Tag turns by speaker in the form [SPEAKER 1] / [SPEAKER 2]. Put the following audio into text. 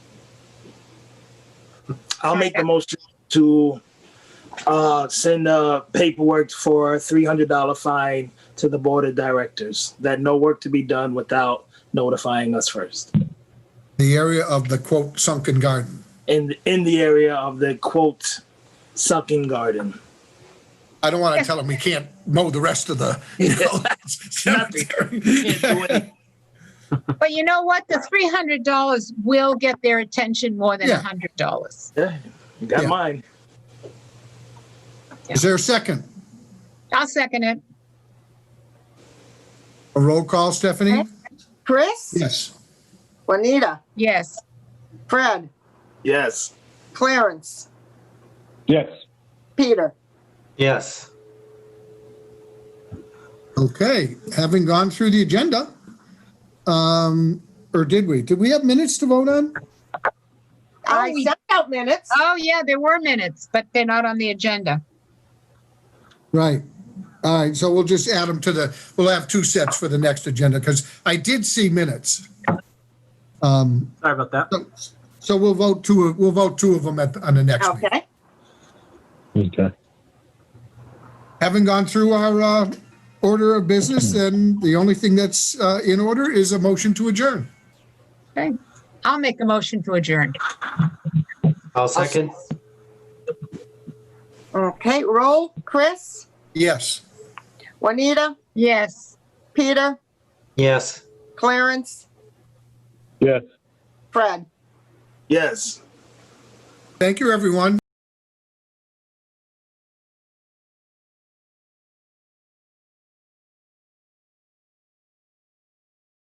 [SPEAKER 1] I'll make the motion to uh, send uh, paperwork for a $300 fine to the board of directors, that no work to be done without notifying us first.
[SPEAKER 2] the area of the quote sunken garden.
[SPEAKER 1] In, in the area of the quote, sucking garden.
[SPEAKER 2] I don't want to tell them we can't mow the rest of the, you know,
[SPEAKER 1] Can't do
[SPEAKER 2] cemetery.
[SPEAKER 1] it.
[SPEAKER 3] But you know what? The three hundred dollars will get their attention more than
[SPEAKER 2] Yeah.
[SPEAKER 3] a hundred dollars.
[SPEAKER 1] Yeah, you got
[SPEAKER 2] Yeah.
[SPEAKER 1] mine.
[SPEAKER 2] Is there a second?
[SPEAKER 3] I'll second it.
[SPEAKER 2] A roll call, Stephanie?
[SPEAKER 4] Chris,
[SPEAKER 2] Yes.
[SPEAKER 4] Juanita,
[SPEAKER 3] Yes.
[SPEAKER 4] Fred,
[SPEAKER 1] Yes.
[SPEAKER 4] Clarence,
[SPEAKER 5] Yes.
[SPEAKER 4] Peter.
[SPEAKER 6] Yes.
[SPEAKER 2] Okay, having gone through the agenda, um, or did we? Did we have minutes to vote on?
[SPEAKER 3] Oh,
[SPEAKER 4] I
[SPEAKER 3] we-
[SPEAKER 4] sent out minutes.
[SPEAKER 3] Oh, yeah, there were minutes, but they're not on the agenda.
[SPEAKER 2] Right. All right, so we'll just add them to the, we'll have two sets for the next agenda because I did see minutes. Um,
[SPEAKER 6] Sorry about that.
[SPEAKER 2] so we'll vote two, we'll vote two of them at, on the
[SPEAKER 3] Oh.
[SPEAKER 2] next meeting.
[SPEAKER 4] Okay,
[SPEAKER 5] Okay.
[SPEAKER 2] Having gone through our uh, order of business, then the only thing that's uh, in order is a motion to adjourn.
[SPEAKER 3] Okay. I'll make a motion to adjourn.
[SPEAKER 6] I'll second.
[SPEAKER 4] okay, roll, Chris,
[SPEAKER 2] Yes.
[SPEAKER 4] Juanita,
[SPEAKER 3] Yes.
[SPEAKER 4] Peter,
[SPEAKER 6] Yes.
[SPEAKER 4] Clarence,
[SPEAKER 5] Yes.
[SPEAKER 4] Fred.
[SPEAKER 1] Yes.
[SPEAKER 2] Thank you, everyone.